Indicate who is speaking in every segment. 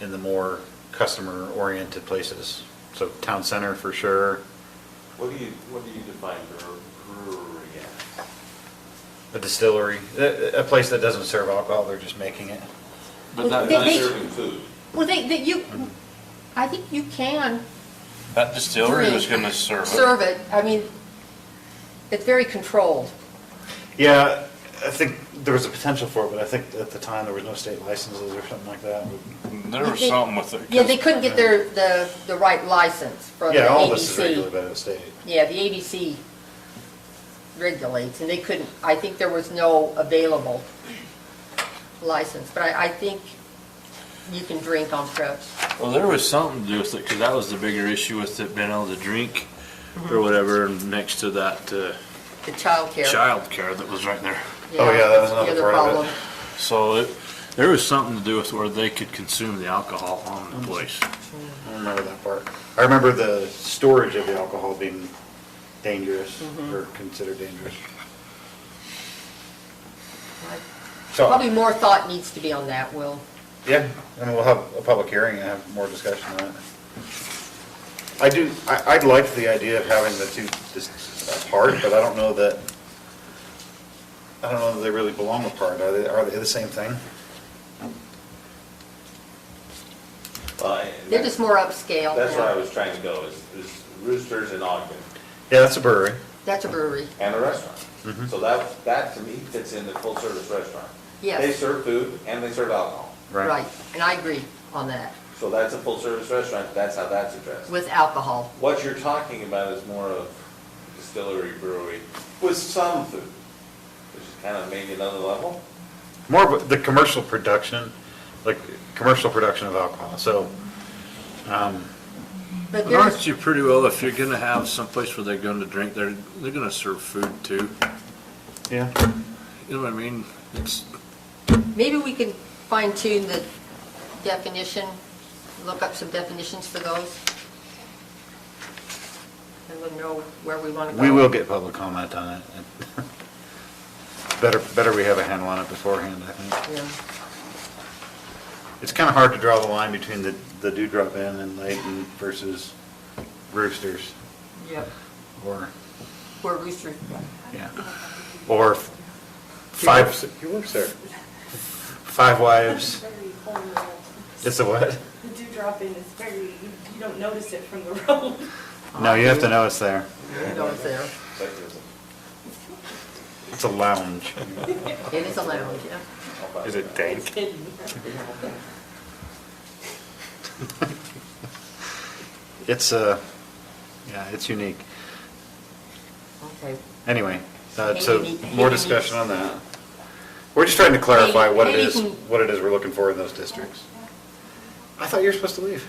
Speaker 1: in the more customer-oriented places. So town center for sure,
Speaker 2: What do you, what do you define bre- brewery as?
Speaker 1: a distillery, a, a place that doesn't serve alcohol, they're just making it.
Speaker 2: But not,
Speaker 3: They-
Speaker 2: not
Speaker 3: they-
Speaker 2: serving food.
Speaker 3: Well, they, that you, I think you can
Speaker 4: That distillery was gonna serve it.
Speaker 3: serve it, I mean, it's very controlled.
Speaker 1: Yeah, I think there was a potential for it, but I think at the time there was no state licenses or something like that.
Speaker 4: There was
Speaker 3: They-
Speaker 4: something with it.
Speaker 3: Yeah, they couldn't get their, the, the right license from the
Speaker 1: Yeah, all this is regulated
Speaker 3: ABC.
Speaker 1: by the state.
Speaker 3: Yeah, the ABC regulates, and they couldn't, I think there was no available license, but I, I think you can drink on trips.
Speaker 4: Well, there was something to do with it, cause that was the bigger issue with it being able to drink
Speaker 3: Mhm.
Speaker 4: or whatever, and next to that, uh,
Speaker 3: The childcare.
Speaker 4: childcare that was right there.
Speaker 1: Oh, yeah, that was
Speaker 3: that's the
Speaker 1: another
Speaker 3: other
Speaker 1: part of it.
Speaker 3: problem.
Speaker 4: So it, there was something to do with where they could consume the alcohol on
Speaker 3: Mm-hmm.
Speaker 4: the place.
Speaker 1: I don't remember that part. I remember the storage of the alcohol being dangerous
Speaker 3: Mm-hmm.
Speaker 1: or considered dangerous. So,
Speaker 3: Probably more thought needs to be on that, Will.
Speaker 1: yeah, and we'll have a public hearing and have more discussion on it. I do, I, I'd like the idea of having the two dis- apart, but I don't know that, I don't know that they really belong apart. Are they, are they the same thing?
Speaker 2: Well, I-
Speaker 3: They're just more upscale.
Speaker 2: That's where
Speaker 3: yeah.
Speaker 2: I was trying to go, is, is Roosters in Ogden
Speaker 1: Yeah, that's a brewery.
Speaker 3: That's a brewery,
Speaker 2: and a restaurant. So that, that to me fits in the full-service restaurant.
Speaker 3: Yes.
Speaker 2: They serve food and they serve alcohol.
Speaker 3: right, and I agree on that,
Speaker 2: So that's a full-service restaurant, that's how that's addressed.
Speaker 3: with alcohol.
Speaker 2: What you're talking about is more of distillery, brewery, with some food, which is kind of maybe another level.
Speaker 1: More of the commercial production, like commercial production of alcohol. So, um,
Speaker 3: But
Speaker 4: Aren't
Speaker 3: there's,
Speaker 4: you pretty well, if you're gonna have someplace where they're gonna drink, they're, they're gonna serve food too.
Speaker 1: yeah.
Speaker 4: You know what I mean? It's,
Speaker 3: maybe we can fine tune the definition, look up some definitions for those. And we'll know where we want to go.
Speaker 1: We will get public comment on it. Better, better we have a handle on it beforehand, I think.
Speaker 3: Yeah.
Speaker 1: It's kind of hard to draw the line between the, the Dewdrop Inn and Layton versus Roosters,
Speaker 3: Yep.
Speaker 1: or,
Speaker 3: Where Rooster,
Speaker 1: yeah, or five. He works there. Five Wives,
Speaker 5: Very horrible.
Speaker 1: it's a what?
Speaker 5: The dewdrop in is very, you you don't notice it from the road.
Speaker 1: No, you have to know it's there.
Speaker 3: you know it's there.
Speaker 2: Secularism.
Speaker 1: It's a lounge.
Speaker 3: It is a lounge, yeah.
Speaker 2: How about that?
Speaker 5: It's hidden.
Speaker 1: It's a, yeah, it's unique.
Speaker 3: Okay.
Speaker 1: Anyway, uh,
Speaker 3: Hey,
Speaker 1: so
Speaker 3: you need-
Speaker 1: more
Speaker 3: hey, you
Speaker 1: discussion
Speaker 3: need-
Speaker 1: on that. We're just trying to clarify
Speaker 3: Hey,
Speaker 1: what it
Speaker 3: hey, you
Speaker 1: is,
Speaker 3: can-
Speaker 1: what it is we're looking for in those districts. I thought you were supposed to leave.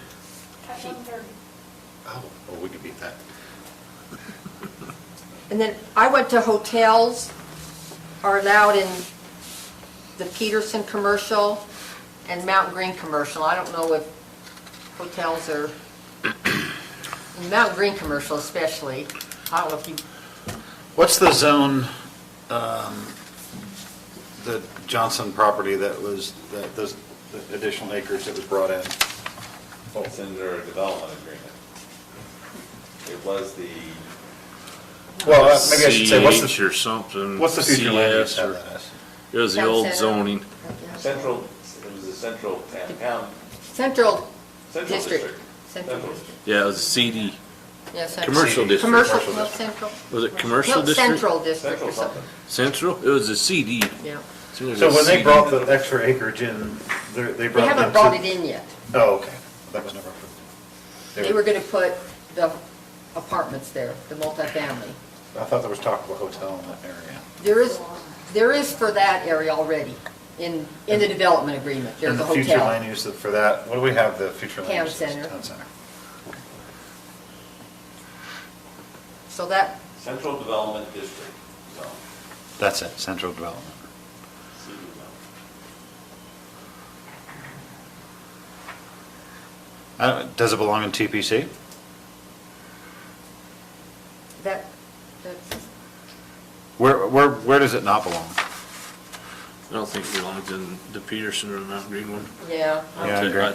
Speaker 5: At one thirty.
Speaker 1: Oh, well, we could beat that.
Speaker 3: And then I went to hotels are allowed in the Peterson commercial and Mountain Green commercial. I don't know if hotels are, in Mountain Green commercial especially, I don't know if you,
Speaker 1: What's the zone, um, the Johnson property that was, that those the additional acres that was brought in?
Speaker 2: It's under a development agreement. It was the,
Speaker 1: Well, uh, maybe I should say, what's
Speaker 4: CH
Speaker 1: the,
Speaker 4: or something.
Speaker 1: what's the future land use
Speaker 4: CS or-
Speaker 1: of that is?
Speaker 4: It was the
Speaker 3: Town
Speaker 4: old
Speaker 3: center.
Speaker 4: zoning.
Speaker 2: central, it was the central town, town,
Speaker 3: Central
Speaker 2: central
Speaker 3: District.
Speaker 2: district.
Speaker 3: Central,
Speaker 2: Central.
Speaker 3: District.
Speaker 4: Yeah, it was a CD.
Speaker 3: yeah, Central.
Speaker 4: Commercial district.
Speaker 3: Commercial,
Speaker 1: Commercial
Speaker 3: no,
Speaker 1: district.
Speaker 3: Central.
Speaker 4: Was it commercial
Speaker 3: No,
Speaker 4: district?
Speaker 3: Central District or
Speaker 2: Central
Speaker 3: something,
Speaker 2: something.
Speaker 4: Central? It was a CD.
Speaker 3: yeah.
Speaker 1: So when they brought the extra acreage in, they're- they
Speaker 3: They
Speaker 1: brought it in.
Speaker 3: haven't brought it in yet.
Speaker 1: Oh, okay. That was never approved.
Speaker 3: They were gonna put the apartments there, the multifamily.
Speaker 1: I thought there was talk of a hotel in that area.
Speaker 3: There is, there is for that area already, in, in the development agreement, there's
Speaker 1: And
Speaker 3: a
Speaker 1: the future land
Speaker 3: hotel.
Speaker 1: use for that, what do we have, the future land
Speaker 3: Town
Speaker 1: use?
Speaker 3: center.
Speaker 1: Town center.
Speaker 3: So that,
Speaker 2: Central Development District, so,
Speaker 1: That's it, central development.
Speaker 2: CDO.
Speaker 1: Uh, Does it belong in TPC?
Speaker 3: that, that's,
Speaker 1: Where, where, where does it not belong?
Speaker 4: I don't think it belonged in the Peterson or the Mount Green one.
Speaker 3: yeah.
Speaker 1: Yeah, I agree.